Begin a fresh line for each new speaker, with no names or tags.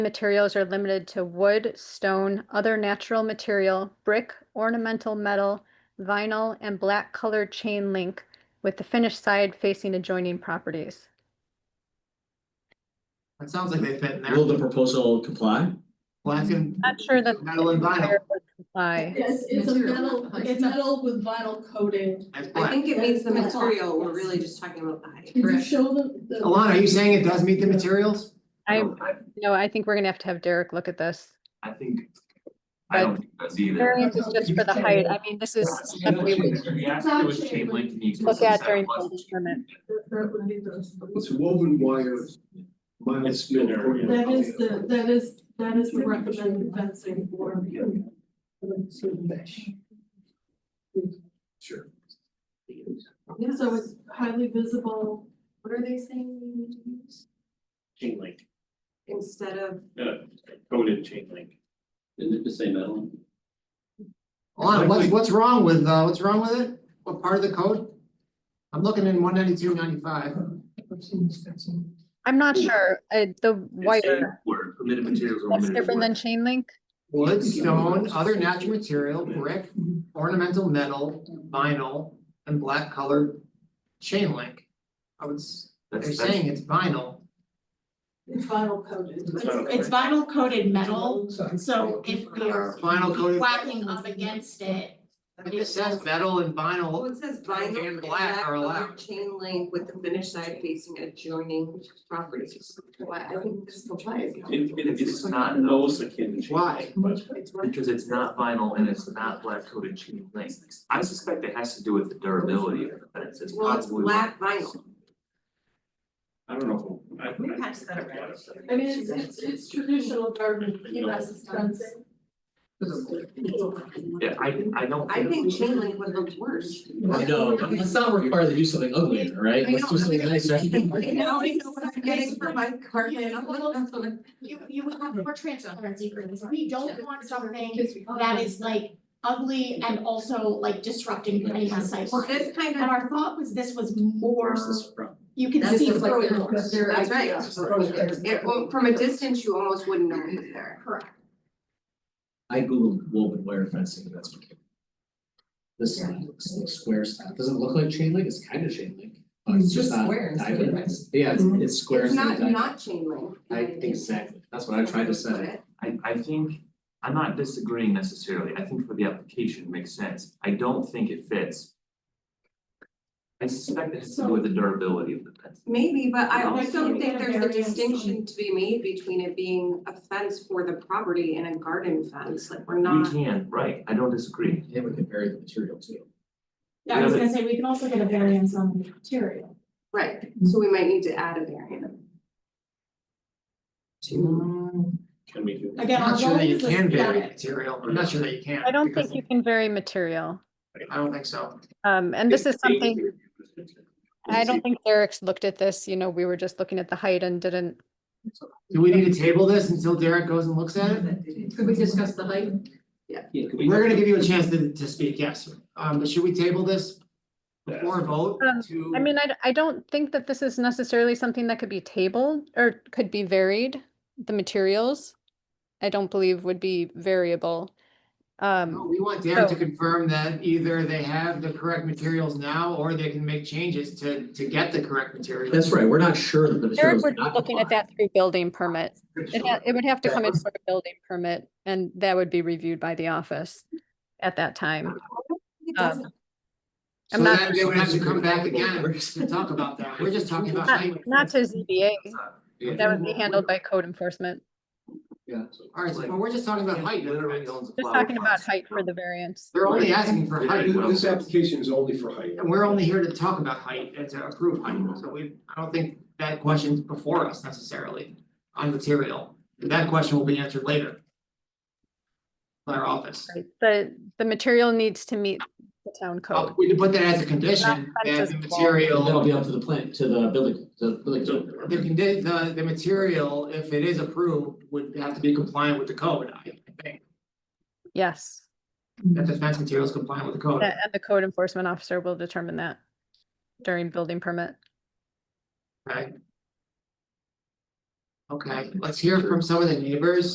materials are limited to wood, stone, other natural material, brick, ornamental metal, vinyl, and black colored chain link with the finished side facing adjoining properties.
That sounds like they fit in there.
Will the proposal comply?
Black and.
Not sure that.
Metal and vinyl.
Comply.
It's, it's a
Material.
metal, it's metal with vinyl coating.
That's
I
black.
think it means the
Yes.
material, we're really just talking about the height.
Did you show them the?
Alana, are you saying it does meet the materials?
I, no, I think we're gonna have to have Derek look at this.
I think. I don't think that's either.
Variance is just for the height. I mean, this is stuff we would
He asked if it was chain link and he.
look at during
said it
building
was.
permit.
That- that would be the-
It's woven wire. Minus.
It's thinner, yeah.
That is the, that is, that is the recommended fencing for.
Sure.
So it's highly visible.
What are they saying we need to use?
Chain link,
Instead of,
coated chain link. Isn't it the same metal?
Alana, what's, what's wrong with, uh, what's wrong with it? What part of the code? I'm looking in one ninety-two ninety-five.
I'm not sure, uh, the wire,
Where permitted materials are
that's
limited to
different than
wood.
chain link?
Wood, stone, other natural material, brick, ornamental metal, vinyl, and black colored chain link. I would, s- they're
That's, that's,
saying it's vinyl.
It's vinyl coated.
It's it's vinyl coated metal, so if you're
Vinyl coated.
whacking up against it,
It just says metal and
well,
vinyl.
it says
And
vinyl and
black
black
are allowed.
colored chain link with the finished side facing adjoining properties. Why, I think this complies.
it, it is not those,
Why?
It's one.
because it's not vinyl and it's not black coated chain link. I suspect it has to do with the durability of the fence, it's
Well, it's
probably.
black vinyl.
I don't know. I-
We passed that around.
I mean, it's, it's, it's traditional garden, you know, it's fencing.
Yeah, I, I don't.
I think chain link would look worse.
No, let's not require they do something ugly, right? Let's do something nice, right?
Now I know what I'm getting for my carpet.
you you would have more transparency for this. We don't want something that is like ugly and also like disrupting any of the sites.
Well, this kind
And
of,
our thought was this was more,
Where's this from?
you can
That's
see
just like
through it
their-
more.
that's right. It, well, from a distance, you almost wouldn't know it was there.
Correct.
I googled woven wire fencing, and that's what came. up. This looks like square stuff, doesn't look like chain link, it's kind of chain link, but it's just not
squares,
diamond.
yeah. Mm-hmm.
Yeah, it's it's square.
It's not,
diamond.
not chain link.
I, exactly, that's what I tried to say.
I I think, I'm not disagreeing necessarily, I think for the application it makes sense, I don't think it fits. I suspect it has to do with the durability of the fence.
Maybe, but I
Yeah.
also think there's a
Variance on-
distinction to be made between it being a fence for the property and a garden fence, like we're
We
not.
can, right, I don't disagree,
Yeah, we can vary the material too.
Yeah, I was gonna say, we can also get a variance on the material.
Right, so we might need to add a variant.
Hmm.
Can we do?
Again,
I'm
our
not sure
goal
that you
is
can
to
vary material. I'm not sure that you can.
I don't
because
think you can vary material.
I don't think so.
Um, and this is something. I don't think Derek's looked at this, you know, we were just looking at the height and didn't,
Do we need to table this until Derek goes and looks at it?
Could we discuss the height?
We're gonna give you a chance to, to speak, yes. Um, but should we table this before a vote
Um,
to?
I mean, I, d- I don't think that this is necessarily something that could be tabled or could be varied. The materials, I don't believe would be variable.
No,
Um,
We want Derek to
so-
confirm that either they have the correct materials now, or they can make changes to, to get the correct materials.
That's right, we're not sure that the
Derek
materials
would be
not
looking at
comply.
that through building permit. It, ha- it would have to come in
That-
for a building permit and that would be reviewed by the office at that time.
It
Um,
doesn't-
So
I'm not-
then they would have to come back again to talk about that. We're just talking about.
Not,
height.
not to ZBA,
Yeah.
that would be handled by code enforcement.
Yeah.
All right, so well, we're just talking about height.
Literally owns a
Just
flower
talking about
pot.
height for the variance.
They're only asking for height.
This application is only for height.
And we're only here to talk about height and to approve height, so we, I don't think that question's before us necessarily on material. That question will be answered later. By our office.
Right, The, the material needs to meet the town code.
We can put that as a condition, that the material.
That'll be up to the plant, to the building, the building.
The condi- the, the material, if it is approved, would have to be compliant with the code, I think.
Yes,
That the fence material is compliant with the code.
a- and the code enforcement officer will determine that during building permit.
Okay. Okay, let's hear from some of the neighbors.